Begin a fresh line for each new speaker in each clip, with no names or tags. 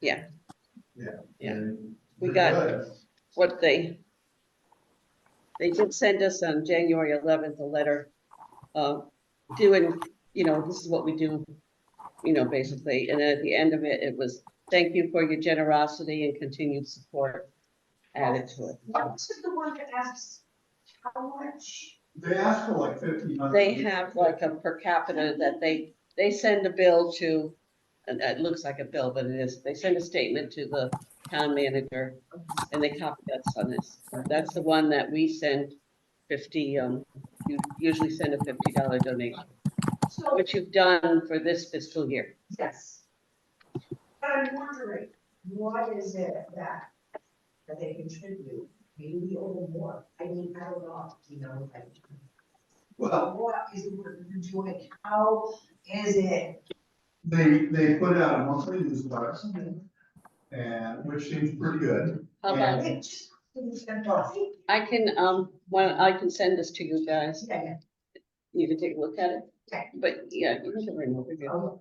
Yeah.
Yeah.
Yeah.
And
We got-
because-
what they, they did send us on January 11th a letter uh, doing, you know, this is what we do, you know, basically. And then at the end of it, it was, thank you for your generosity and continued support added to it.
What was the one that asks how much?
They asked for like fifteen hundred.
They have like a per capita that they, they send a bill to, and it looks like a bill, but it is, they send a statement to the town manager and they copy us on this. That's the one that we send fifty, um, you usually send a fifty dollar donation,
So,
which you've done for this fiscal year.
yes. But I'm wondering, what is it that, that they contribute, maybe over more? I mean, I don't know, you know, like,
Well,
what is the work you're doing? How is it?
they, they put out a monthly newsletter and, which seems pretty good.
How about,
It just, it's fantastic.
I can, um, one, I can send this to you guys,
Yeah, yeah.
you can take a look at it.
Okay.
But, yeah, you can bring it over here.
Oh,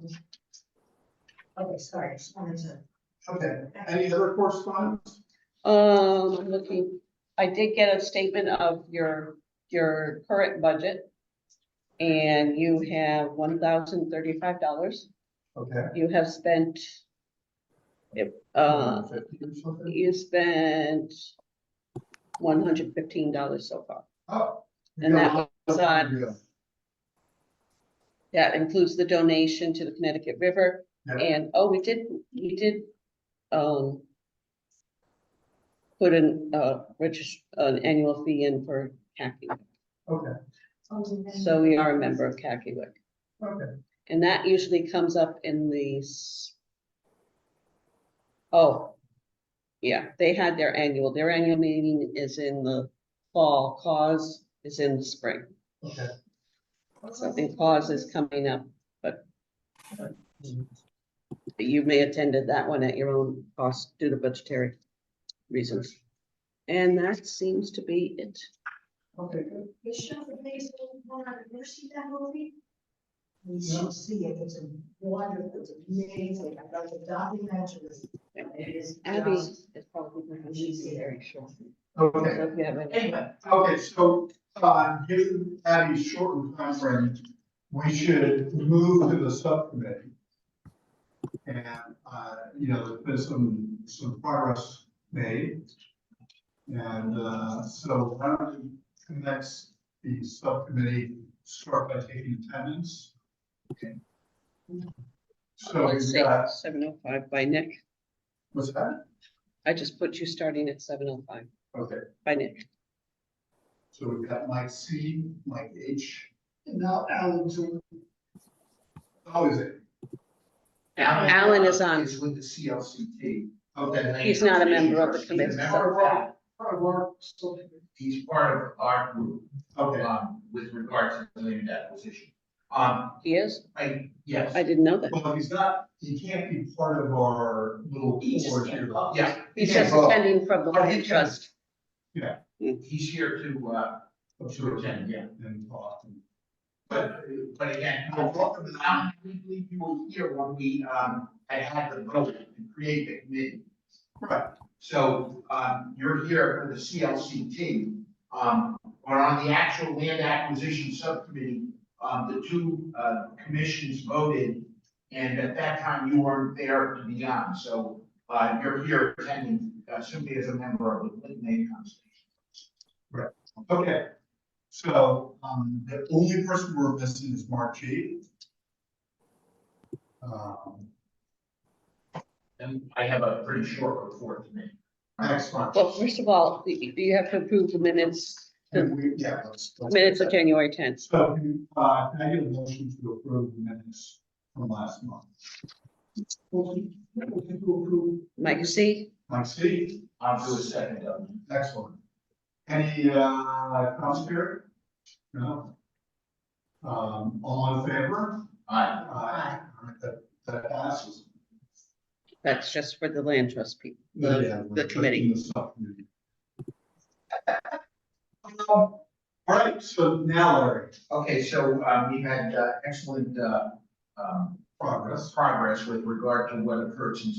Okay, sorry, I just wanted to.
Okay, any other correspondence?
Um, I'm looking, I did get a statement of your, your current budget. And you have one thousand thirty-five dollars.
Okay.
You have spent. Uh,
150 or something?
you spent one hundred fifteen dollars so far.
Oh. we
And
got
that
a
was
lot
on,
to do.
that includes the donation to the Connecticut River.
Yeah.
And, oh, we did, we did, um. Put an, uh, regis- an annual fee in for khaki.
Okay,
So we are a member of Kakiwik,
okay,
and that usually comes up in the s- Oh, yeah, they had their annual, their annual meeting is in the fall, cause is in the spring.
okay.
Something cause is coming up, but but you may attended that one at your own cost due to budgetary reasons. And that seems to be it.
Okay, good.
You show the biggest one, have you ever seen that movie? You should see it, it's a wonderful, it's amazing, I love the documentaries. It is
Abby
just,
is probably going to be very short.
Okay.
So if you have any-
anyway,
Okay, so, uh, given Abby's shortened timeframe, we should move to the subcommittee. And, uh, you know, there's been some, some progress made. And, uh, so why don't we commence the subcommittee, start by taking attendance? Okay. So
Let's
we've
say
got,
seven oh five by Nick.
what's that?
I just put you starting at seven oh five
Okay,
by Nick.
so we've got Mike C, Mike H, and now Alan too. Oh, is it?
Alan is on.
Is with the CLCT.
Okay,
He's not a member of the
He's a member
committee.
of that.
part of our social-
He's part of our group,
okay,
um, with regards to the land acquisition. Um,
He is?
I, yes,
I didn't know that.
well, he's not, he can't be part of our little
He just
board
can't
here.
vote.
yeah.
He's
he
just
can vote.
attending from the
But he
land
can-
trust.
He's here to, uh, to attend, yeah.
And talk. and-
But, but again, I welcome to I believe you were here when we, um, had had the vote and create the committee.
Right,
So, um, you're here for the CLCT, um, but on the actual land acquisition subcommittee, um, the two, uh, commissions voted, and at that time you weren't there to be on, so, uh, you're here attending, uh, simply as a member of the Clinton Aid Council.
okay. So, um, the only person we're missing is Mark G. Um,
And I have a pretty short report to make.
next one.
Well, first of all, you you have to approve the minutes,
And we- yeah, let's- let's-
minutes of January tenth.
So, uh, can I get a motion to approve the minutes from last month? Motion to approve.
Mike C,
Mike C?
I'll do a second of them.
Excellent. Any, uh, comments here? No? Um, all in favor?
Aye.
Aye. All right, That, that passes.
that's just for the land trust people. The-
Yeah, we're
committee.
taking this up. Um, All right, so now, Larry,
Okay, so, um, we had uh, excellent, uh, um,
progress.
progress with regard to what occurred since